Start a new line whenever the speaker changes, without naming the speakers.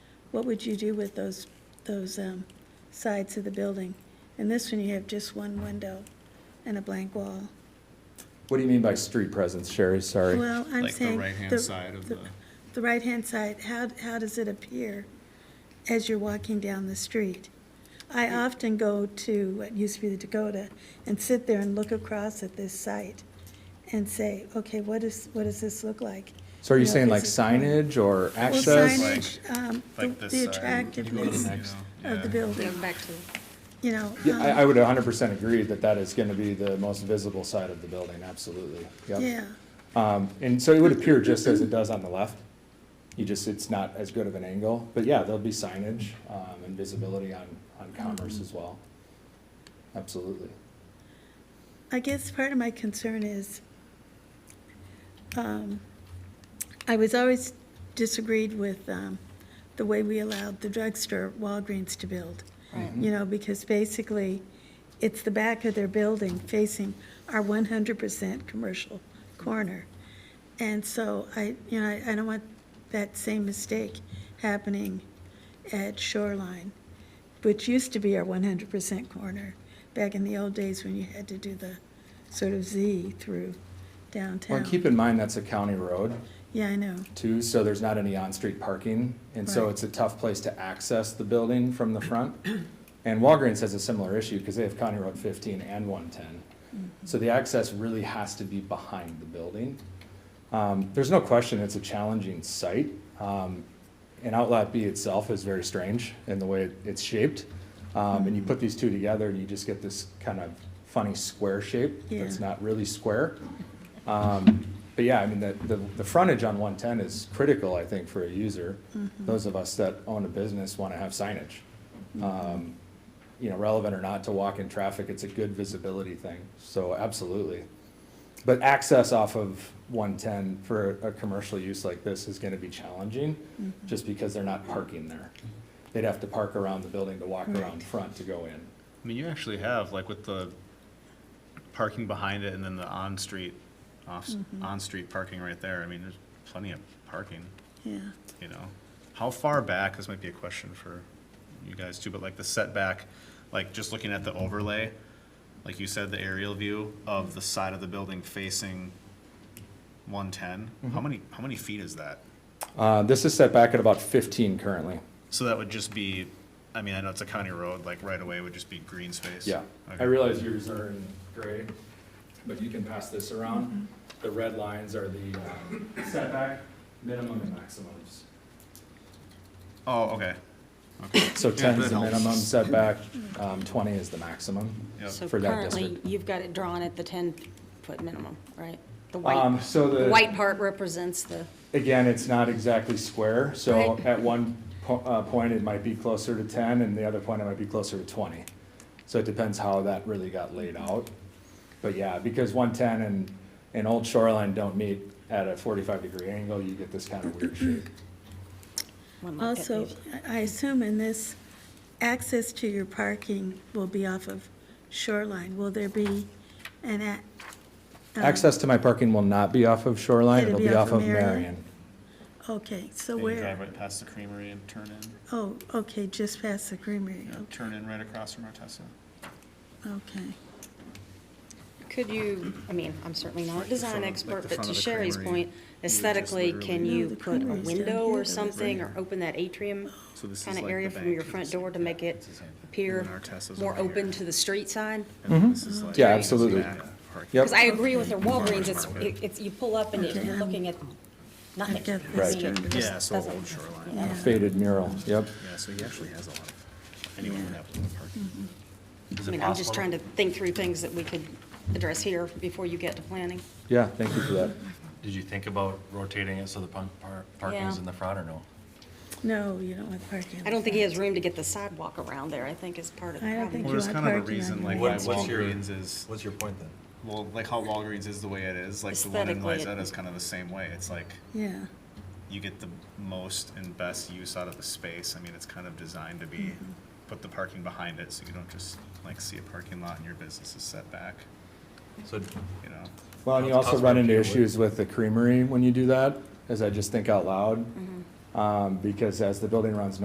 what would you do with those, those um, sides of the building? In this one, you have just one window and a blank wall.
What do you mean by street presence, Sherry? Sorry.
Well, I'm
Like the
saying.
right-hand side of the,
The right-hand side, how, how does it appear as you're walking down the street? I often go to what used to be the Dakota and sit there and look across at this site and say, okay, what is, what does this look like?
So are you
know,
saying
is
like
it-
signage or
Well,
access?
signage, um, the-
like this
the
side. You go to
attractiveness
the
next.
of the
yeah.
Yeah,
building,
back to,
you know.
Yeah,
um,
I, I would hundred percent agree that that is gonna be the most visible side of the building, absolutely. Yep.
Yeah,
Um, and so it would appear just as it does on the left. You just, it's not as good of an angle, but yeah, there'll be signage, um, and visibility on, on Commerce
Mm-hmm.
as well. Absolutely.
I guess part of my concern is, um, I was always disagreed with, um, the way we allowed the drugstore Walgreens to build.
right.
Mm-hmm.
You know, because basically, it's the back of their building facing our one hundred percent commercial corner. And so I, you know, I, I don't want that same mistake happening at Shoreline, which used to be our one hundred percent corner, back in the old days when you had to do the sort of Z through
Well,
downtown.
and keep in mind, that's a county road.
Yeah, I know,
too, so there's not any on-street parking. And so
Right.
it's a tough place to access the building from the front. And Walgreens has a similar issue because they have County Road fifteen and one ten. So the access really has to be behind the building. Um, there's no question it's a challenging site. Um, and Outlot B itself is very strange in the way it's shaped. Um, and you put these two together, you just get this kind of funny square shape that's
Yeah.
not really square. Um, But yeah, I mean, the, the, the frontage on one ten is critical, I think, for a user. Those of us that own a business want to have signage. Um, You know, relevant or not to walk-in traffic, it's a good visibility thing, so absolutely. But access off of one ten for a commercial use like this is gonna be challenging, just because they're not parking there. They'd have to park around the building to walk around front to go in.
I mean, you actually have, like with the parking behind it and then the on-street, off,
Mm-hmm.
on-street parking right there. I mean, there's plenty of parking,
yeah.
you know? How far back, this might be a question for you guys too, but like the setback, like just looking at the overlay, like you said, the aerial view of the side of the building facing one-ten,
Mm-hmm.
how many, how many feet is that?
Uh, this is set back at about fifteen currently.
So that would just be, I mean, I know it's a county road, like right away would just be green space.
Yeah, I
Okay.
realize yours are in gray, but you can pass this around. The red lines are the uh, setback, minimum and maximums.
Oh, okay.
So
Yeah,
ten is
that
the
helps.
minimum setback, um, twenty is the maximum
Yep.
So
for that
currently,
district.
you've got it drawn at the 10-foot minimum, right? The
Um,
white,
so
the
the.
white part represents the,
again, it's not exactly square, so
Right.
at one po- uh, point, it might be closer to ten, and the other point, it might be closer to twenty. So it depends how that really got laid out. But yeah, because one-ten and, and Old Shoreline don't meet at a forty-five degree angle, you get this kind of weird shape.
one might get
Also,
these.
I I assume in this, access to your parking will be off of Shoreline. Will there be an a- um,
Access to my parking will not be off of Shoreline, Oh. it'll be off of Marion.
Okay, so
Then you drive
where,
right past the creamery and turn in,
oh, okay, just past the creamery,
you know, turn in right across from Artesa.
okay.
Could you, I mean, I'm certainly not a design
front of- like
expert,
the
but
front
to
of the
Sherry's
creamery,
point,
you would just
aesthetically, can
literally-
No,
you
the
put a
creamery's down
window
here,
or
but it's right
something, or
here.
open that atrium
So this is
kind
like
of
the
area from
bank
your
and
front
it's
door
like
to make
that.
it
It's the same thing.
appear
And then Artesa's
more
over
open
here.
to the street side?
And then this is like-
Mm-hmm. Yeah,
this is
absolutely.
back parking.
Yep.
Because I agree with the Walgreens,
Farmers
it's,
market.
it's, you pull up and
Okay.
you're looking at nothing.
I've got
I
this
mean,
Right.
it just
Yeah, so
doesn't-
old shoreline.
Yeah.
Faded mural, yep.
Yeah, so he actually has a lot of, anyone would have a lot of parking. Is
I
it
mean, I'm just
possible
trying to think through things that we could address here before you get to planning.
Yeah, thank you for that.
Did you think about rotating it so the pun- par- parking's
Yeah.
in the front or no?
No, you don't want parking.
I don't think he has room to get the sidewalk around there, I think is part of the
I don't
problem.
think-
Well, there's
you
kind
want
of a
parking on
reason like
your
why
What- what's your-
Walgreens is,
What's your point then?
well, like how Walgreens is the way it is, like the one in
Aesthetically, it-
Lizette is kind of the same way. It's like,
Yeah,
you get the most and best use out of the space. I mean, it's kind of designed to be, put the parking behind it so you don't just like see a parking lot and your business is set back,
So
you know?
Well, and you
That's
also
us
run
working
into
with-
issues with the creamery when you do that, as I just think out loud. Um, because as the building runs